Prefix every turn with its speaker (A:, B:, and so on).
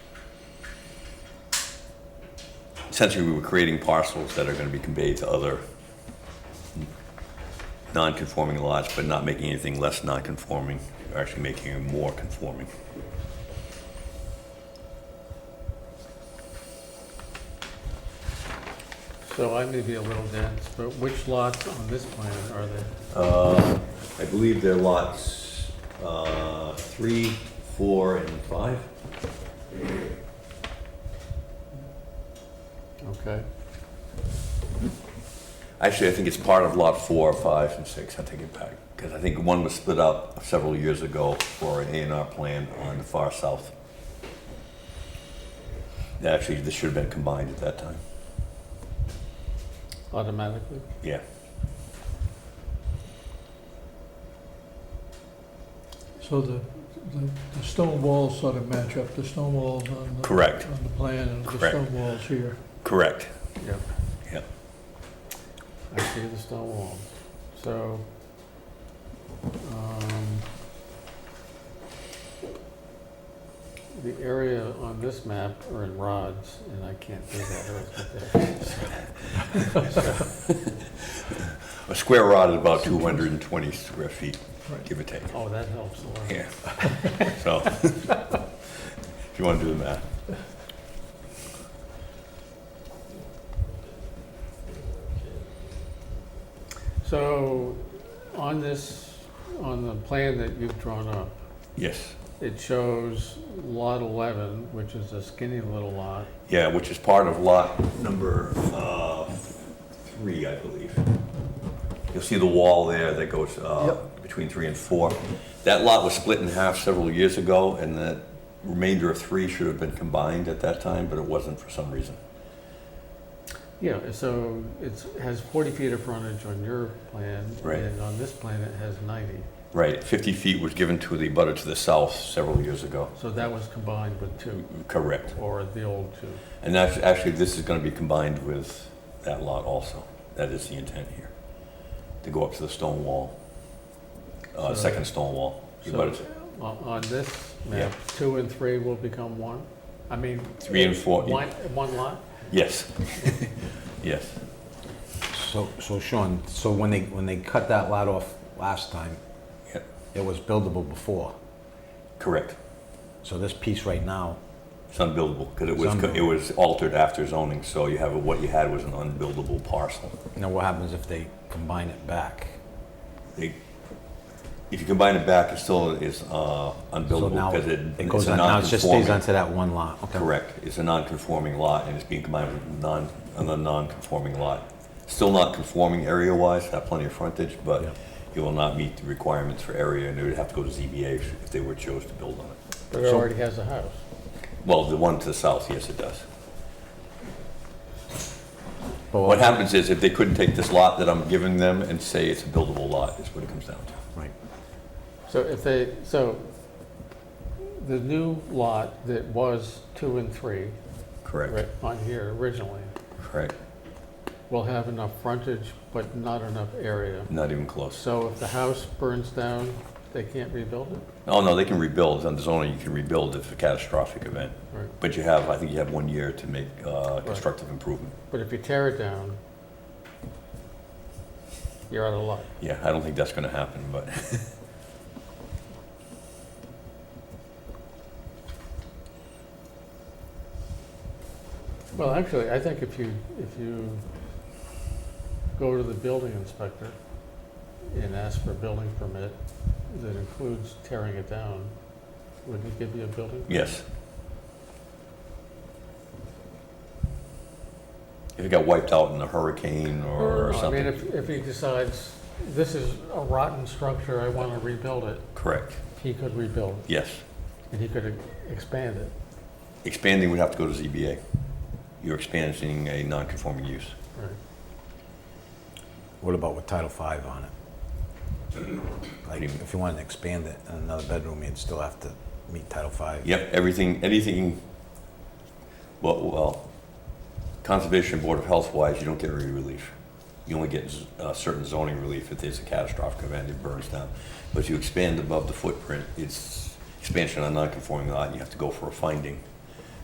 A: essentially, we were creating parcels that are going to be conveyed to other non-conforming lots, but not making anything less non-conforming, You're actually making it more conforming.
B: So I may be a little dense, but which lots on this plan are they?
A: I believe they're lots uh, three, four, and five.
B: Okay.
A: Actually, I think it's part of lot four, five, and six, I take it back, because I think one was split up several years ago for an A and R plan on the far south. Actually, this should have been combined at that time,
B: Automatically?
A: yeah.
C: So the, the, the stone walls sort of match up, the stone walls on the.
A: Correct.
C: On the plan and the
A: Correct.
C: stone walls here.
A: Correct.
B: Yep.
A: Yep.
B: I see the stone walls. So, um, the area on this map are in rods, and I can't do that earth with that.
A: A square rod is about 220 square feet,
C: Right.
A: give or take.
B: Oh, that helps a lot.
A: Yeah. So, if you want to do the math.
B: So, on this, on the plan that you've drawn up,
A: Yes.
B: It shows lot 11, which is a skinny little lot.
A: Yeah, which is part of lot number uh, three, I believe. You'll see the wall there that goes uh, between three and four. That lot was split in half several years ago, and the remainder of three should have been combined at that time, but it wasn't for some reason.
B: Yeah, so it's, has 40 feet of frontage on your plan.
A: Right.
B: And on this plan, it has 90.
A: Right, 50 feet was given to the abutter to the south several years ago.
B: So that was combined with two,
A: Correct.
B: or the old two.
A: And that's, actually, this is gonna be combined with that lot also. That is the intent here, to go up to the stone wall, uh,
B: So-
A: second stone wall. You
B: So-
A: got it.
B: On on this map, two and three will become one? I mean.
A: Three and four, yeah.
B: One, one lot?
A: Yes. Yes.
D: So, so Sean, so when they, when they cut that lot off last time,
A: Yep.
D: it was buildable before.
A: Correct.
D: So this piece right now,
A: It's unbuildable, because it
D: It's
A: was,
D: unbuildable.
A: it was altered after zoning, so you have, what you had was an unbuildable parcel.
D: now what happens if they combine it back?
A: They- If you combine it back, it still is uh,
D: So
A: unbuildable,
D: now
A: because it,
D: it
A: it's
D: goes
A: a
D: on, now it just stays
A: non-conforming.
D: onto that one lot. Okay.
A: Correct. It's a non-conforming lot, and it's being combined with non, another non-conforming lot. Still not conforming area-wise, have plenty of frontage,
D: Yeah.
A: but it will not meet the requirements for area, and it would have to go to ZBA if they were chose to build on it.
B: But it
D: So-
B: already has a house.
A: Well, the one to the south, yes, it does.
D: But
A: What happens is, if they couldn't take this lot that I'm giving them and say it's a buildable lot, is what it comes down to.
D: Right.
B: So if they, so the new lot that was two and three, right,
A: Correct.
B: on here originally,
A: Correct.
B: will have enough frontage, but not enough area.
A: Not even close.
B: So if the house burns down, they can't rebuild it?
A: Oh, no, they can rebuild. Under zoning, you can rebuild if it's a catastrophic event.
B: Right.
A: But you have, I think you have one year to make uh, constructive improvement.
B: But if you tear it down, you're out of luck.
A: Yeah, I don't think that's going to happen, but
B: Well, actually, I think if you, if you go to the building inspector and ask for a building permit that includes tearing it down, would he give you a building?
A: yes. If it got wiped out in a hurricane or
B: Oh, I
A: something.
B: mean, if, if he decides, this is a rotten structure, I want to rebuild it,
A: Correct,
B: he could rebuild, it,
A: yes.
B: and he could expand it.
A: Expanding would have to go to ZBA. You're expanding a non-conforming use.
B: Right.
D: What about with Title V on it? Like, if you wanted to expand it in another bedroom, you'd still have to meet Title V.
A: Yep, everything, anything, well, well, Conservation Board of Health wise, you don't get any relief. You only get z- uh, certain zoning relief if there's a catastrophic event, it burns down. But if you expand above the footprint, it's expansion on non-conforming lot, and you have to go for a finding